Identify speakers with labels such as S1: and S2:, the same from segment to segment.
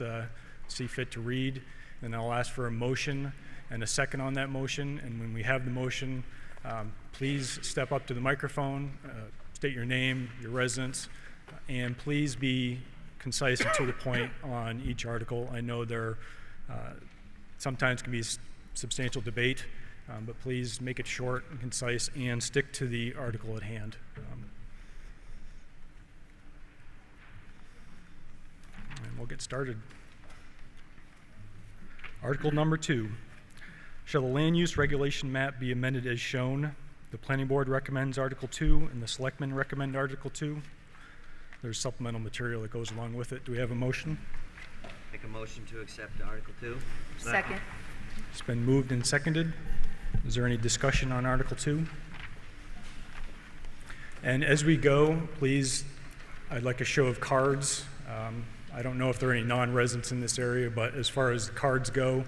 S1: uh, see fit to read. Then I'll ask for a motion and a second on that motion. And when we have the motion, um, please step up to the microphone, uh, state your name, your residence, and please be concise and to the point on each article. I know there uh, sometimes can be s- substantial debate, um, but please make it short and concise and stick to the article at hand. Um, And we'll get started. Article number two. Shall the land use regulation map be amended as shown? The planning board recommends Article two and the selectmen recommend Article two. There's supplemental material that goes along with it. Do we have a motion?
S2: Make a motion to accept Article Two.
S3: Second.
S1: It's been moved and seconded. Is there any discussion on Article 2? And as we go, please, I'd like a show of cards. Um, I don't know if there are any non-residents in this area, but as far as the cards go,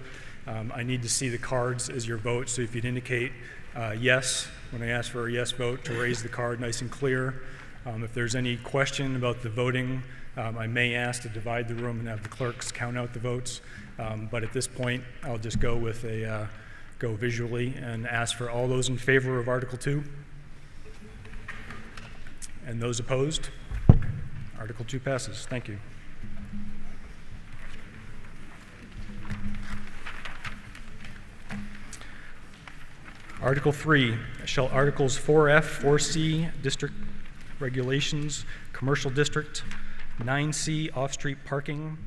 S1: um, I need to see the cards as your vote. So if you'd indicate uh, yes, when I ask for a yes vote, to raise the card nice and clear. Um, If there's any question about the voting, um, I may ask to divide the room and have the clerks count out the votes. Um, But at this point, I'll just go with a, uh, go visually and ask for all those in favor of Article 2? And those opposed? Article 2 passes. Thank you. Article 3, shall Articles 4F, 4C, District Regulations, Commercial District, 9C, Off-Street Parking,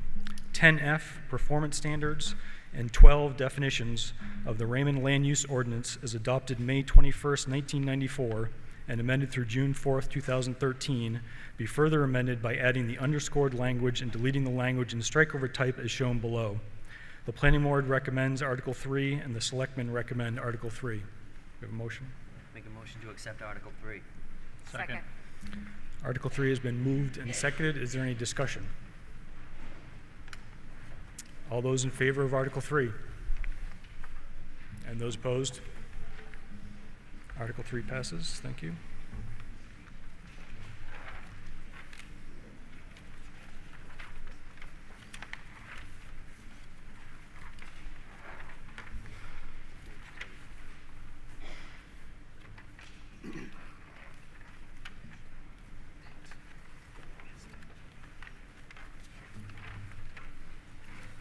S1: 10F, Performance Standards, and 12 Definitions of the Raymond Land Use Ordinance as adopted May 21st, 1994, and amended through June 4th, 2013, be further amended by adding the underscored language and deleting the language in strikeover type as shown below. The planning board recommends Article 3, and the selectmen recommend Article 3. We have a motion.
S2: Make a motion to accept Article Three.
S3: Second.
S1: Article 3 has been moved and seconded. Is there any discussion? All those in favor of Article 3? And those opposed? Article 3 passes. Thank you.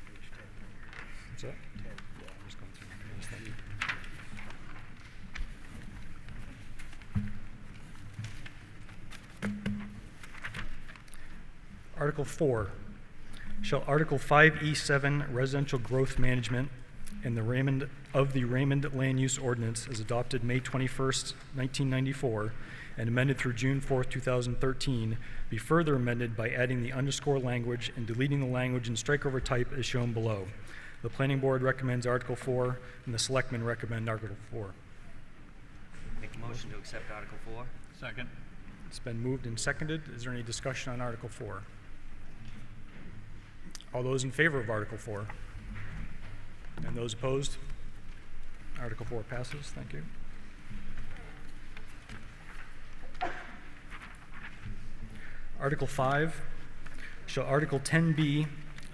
S1: What's that? Just going through my notes. Thank you. Article 4, shall Article 5E7 Residential Growth Management in the Raymond, of the Raymond Land Use Ordinance as adopted May 21st, 1994, and amended through June 4th, 2013, be further amended by adding the underscore language and deleting the language in strikeover type as shown below. The planning board recommends Article 4, and the selectmen recommend Article 4.
S2: Make a motion to accept Article Four.
S4: Second.
S1: It's been moved and seconded. Is there any discussion on Article 4? All those in favor of Article 4? And those opposed? Article 4 passes. Thank you. Article 5, shall Article 10B,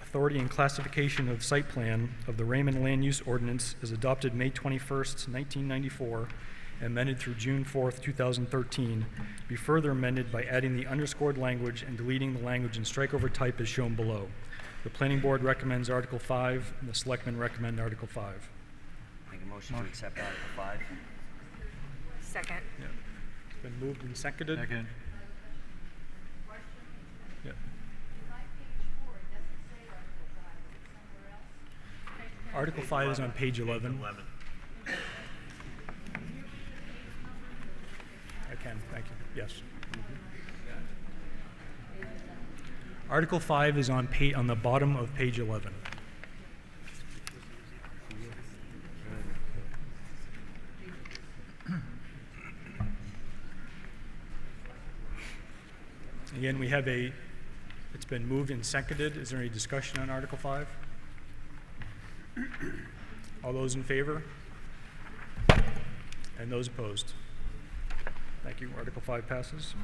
S1: Authority and Classification of Site Plan of the Raymond Land Use Ordinance as adopted May 21st, 1994, amended through June 4th, 2013, be further amended by adding the underscored language and deleting the language in strikeover type as shown below. The Planning Board recommends Article 5, and the Selectmen recommend Article 5.
S2: Make a motion to accept Article Five.
S3: Second.
S1: It's been moved and seconded.
S4: Second.
S1: Yeah. Article 5 is on page 11. I can, thank you, yes. Article 5 is on pa, on the bottom of page 11. Again, we have a, it's been moved and seconded. Is there any discussion on Article 5? All those in favor? And those opposed? Thank you. Article 5 passes.